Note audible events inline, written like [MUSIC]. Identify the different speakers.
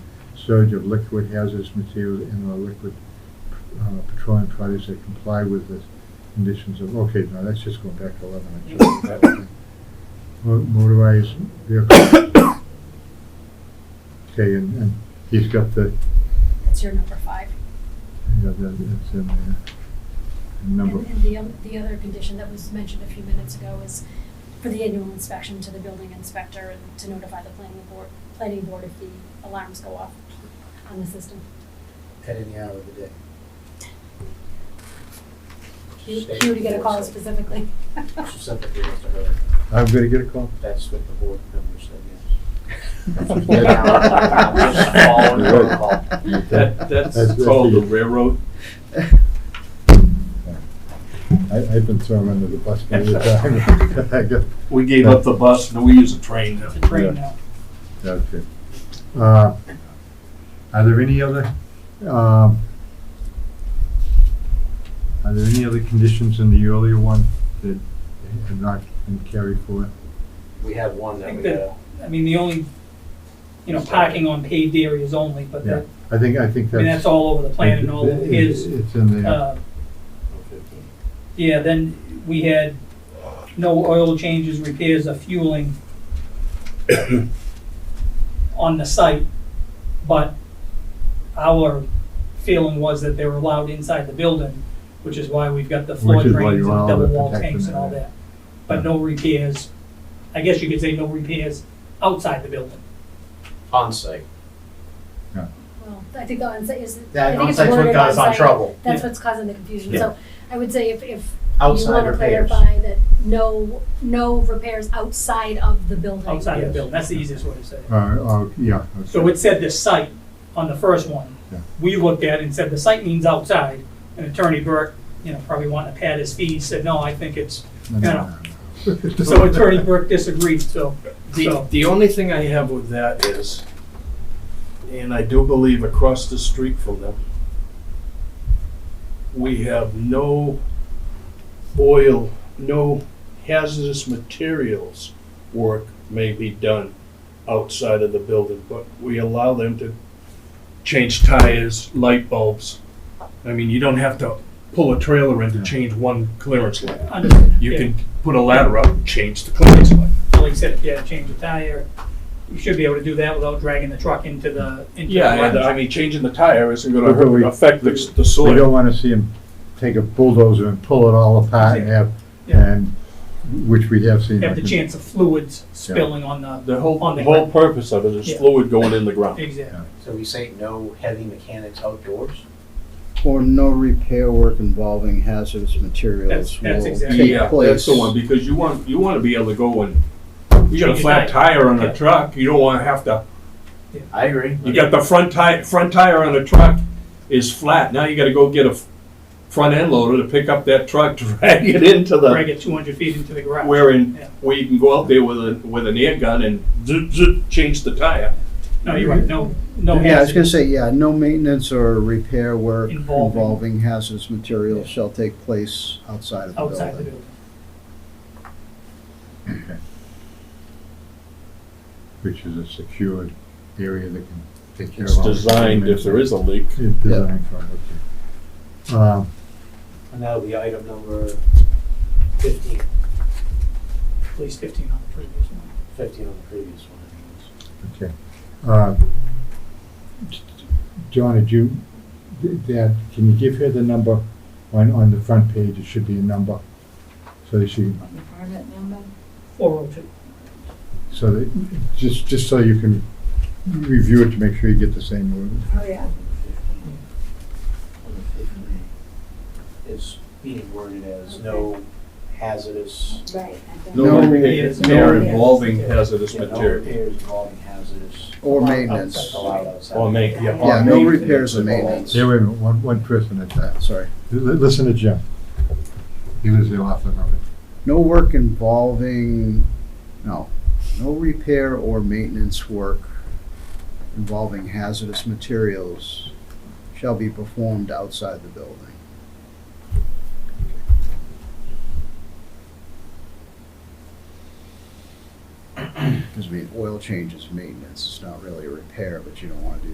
Speaker 1: storage of liquid hazardous materials and/or liquid uh, petroleum products that comply with the conditions of, okay, no, that's just going back to eleven. I'm sorry. That one. Mo- Motorized vehicles. Okay, and, and he's got the,
Speaker 2: That's your number five.
Speaker 1: yeah, that- that's in there. Number.
Speaker 2: And and the, oth- the other condition that was mentioned a few minutes ago is for the annual inspection to the building inspector and to notify the planning board, planning board if the alarms go off on the system.
Speaker 3: at any hour of the day.
Speaker 2: He he would get a call specifically.
Speaker 3: She sent that to her.
Speaker 1: I'm gonna get a call.
Speaker 3: That's what the board members said, yes.
Speaker 4: Yeah.
Speaker 3: I'm just following her call.
Speaker 4: That,
Speaker 1: That's
Speaker 4: that's
Speaker 1: good.
Speaker 4: called the railroad.
Speaker 1: I, I've been thrown under the bus many a time.
Speaker 4: [LAUGHS]
Speaker 1: I got-
Speaker 4: We gave up the bus and we use a train now.
Speaker 1: Yeah. Okay. Uh, Are there any other, um, are there any other conditions in the earlier one that have not been carried forward?
Speaker 3: We have one
Speaker 5: I
Speaker 3: that
Speaker 5: think
Speaker 3: we,
Speaker 5: that-
Speaker 3: uh,
Speaker 5: I mean, the only, you know, parking on paved areas only, but
Speaker 1: Yeah,
Speaker 5: that,
Speaker 1: I think, I think
Speaker 5: I mean, that's
Speaker 1: that's.
Speaker 5: all over the plan and all of his,
Speaker 1: It's in there.
Speaker 5: uh, yeah, then we had no oil changes, repairs or
Speaker 1: [COUGHS]
Speaker 5: fueling on the site, but our feeling was that they were allowed inside the building, which is why we've got the floor
Speaker 1: Which is why
Speaker 5: drains and
Speaker 1: you allow
Speaker 5: double
Speaker 1: the
Speaker 5: wall
Speaker 1: protection
Speaker 5: tanks and all
Speaker 1: there.
Speaker 5: that. But no repairs, I guess you could say no repairs outside the building.
Speaker 3: onsite.
Speaker 2: Well, I think the onsite is, I
Speaker 3: That
Speaker 2: think it's
Speaker 3: onsite's what
Speaker 2: worded
Speaker 3: got us on
Speaker 2: onsite.
Speaker 3: trouble.
Speaker 2: That's
Speaker 5: Yeah.
Speaker 2: what's causing the confusion.
Speaker 3: Yeah.
Speaker 2: So I would say if, if you
Speaker 3: Outside
Speaker 2: want to
Speaker 3: repairs.
Speaker 2: clarify that no, no repairs outside of the building.
Speaker 5: outside of the
Speaker 3: Yes.
Speaker 5: building, that's the easiest way to say it.
Speaker 1: Uh, oh, yeah. okay.
Speaker 5: So it said the site on the first one.
Speaker 1: Yeah.
Speaker 5: We looked at it and said the site means outside, and Attorney Burke, you know, probably wanting to pad his feet, said, no, I think it's,
Speaker 1: No, no, no, no.
Speaker 5: [LAUGHS] so Attorney Burke disagreed, so,
Speaker 6: The,
Speaker 5: so,
Speaker 6: the only thing I have with that is, and I do believe across the street from them, we have no oil, no hazardous materials work may be done outside of the building, but we allow them to change tires, light bulbs. I mean, you don't have to pull a trailer in to change one clearance light.
Speaker 5: understood.
Speaker 6: You
Speaker 5: Yeah.
Speaker 6: can put a ladder up and change the clearance light.
Speaker 5: So like I said, if you had to change a tire, you should be able to do that without dragging the truck into the, into the
Speaker 6: Yeah, and I
Speaker 5: garage.
Speaker 6: mean, changing the tire isn't
Speaker 1: But we-
Speaker 6: gonna affect the, the
Speaker 1: We don't
Speaker 6: soil.
Speaker 1: wanna see him take a bulldozer and pull it all apart and have,
Speaker 5: Yeah.
Speaker 1: and, which we have seen.
Speaker 5: Have the chance of fluids spilling on the,
Speaker 6: The whole,
Speaker 5: On the
Speaker 6: the whole
Speaker 5: ground.
Speaker 6: purpose of it is
Speaker 5: Yeah.
Speaker 6: fluid going in the ground.
Speaker 5: exactly.
Speaker 3: So we say no heavy mechanics outdoors?
Speaker 7: Or no repair work involving hazardous materials
Speaker 5: That's- that's
Speaker 7: will
Speaker 5: exactly-
Speaker 6: Yeah,
Speaker 7: take
Speaker 6: that's
Speaker 7: place.
Speaker 6: the one, because you want, you wanna be able to go and, you got a
Speaker 5: Change your
Speaker 6: flat
Speaker 5: tire.
Speaker 6: tire on
Speaker 5: Yeah.
Speaker 6: a truck, you don't wanna have to,
Speaker 3: I agree.
Speaker 6: you got the front tire, front tire on a truck is flat, now you gotta go get a f- front end loader to [LAUGHS] pick up that truck, drag it into
Speaker 5: Drag
Speaker 6: the,
Speaker 5: it two hundred feet into the garage.
Speaker 6: wherein,
Speaker 5: Yeah.
Speaker 6: where you can go out there with a, with an air gun and zoot, zoot, change the tire.
Speaker 5: No, you're right, no, no
Speaker 7: Yeah, I was gonna
Speaker 5: hazard
Speaker 7: say, yeah, no maintenance or repair work
Speaker 5: Involving.
Speaker 7: involving hazardous materials shall take place outside of the
Speaker 5: outside the
Speaker 7: building.
Speaker 5: building.
Speaker 1: Which is a secured area that can take care of.
Speaker 6: It's
Speaker 1: all the
Speaker 6: designed,
Speaker 1: elements.
Speaker 6: if there is a leak,
Speaker 1: It's designed for, it, okay. Um,
Speaker 3: And that'll be item number fifteen,
Speaker 5: At least fifteen on the previous one.
Speaker 3: fifteen on the previous one. I
Speaker 1: Okay. Uh, John, did you, did that, can you give her the number on, on the front page? It should be a number. So that she,
Speaker 5: Four oh two.
Speaker 1: so that, just, just so you can review it to make sure you get the same order.
Speaker 3: think it was. On the 15. It's being worded as no hazardous,
Speaker 7: No
Speaker 6: no
Speaker 5: repairs.
Speaker 6: repairs, no
Speaker 7: No
Speaker 6: involving hazardous
Speaker 3: no
Speaker 6: material.
Speaker 3: repairs involving hazardous.
Speaker 7: Or maintenance.
Speaker 3: Outside, allowed outside.
Speaker 6: Or ma- yeah, or
Speaker 7: Yeah, no
Speaker 6: maintenance.
Speaker 7: repairs or maintenance,
Speaker 1: There, wait a minute, one, one person at that.
Speaker 7: sorry.
Speaker 1: L- Listen to Jim. He was the author of it.
Speaker 7: No work involving, no, no repair or maintenance work involving hazardous materials shall be performed outside the building. Because I mean, oil change is maintenance, it's not really a repair, but you don't want to do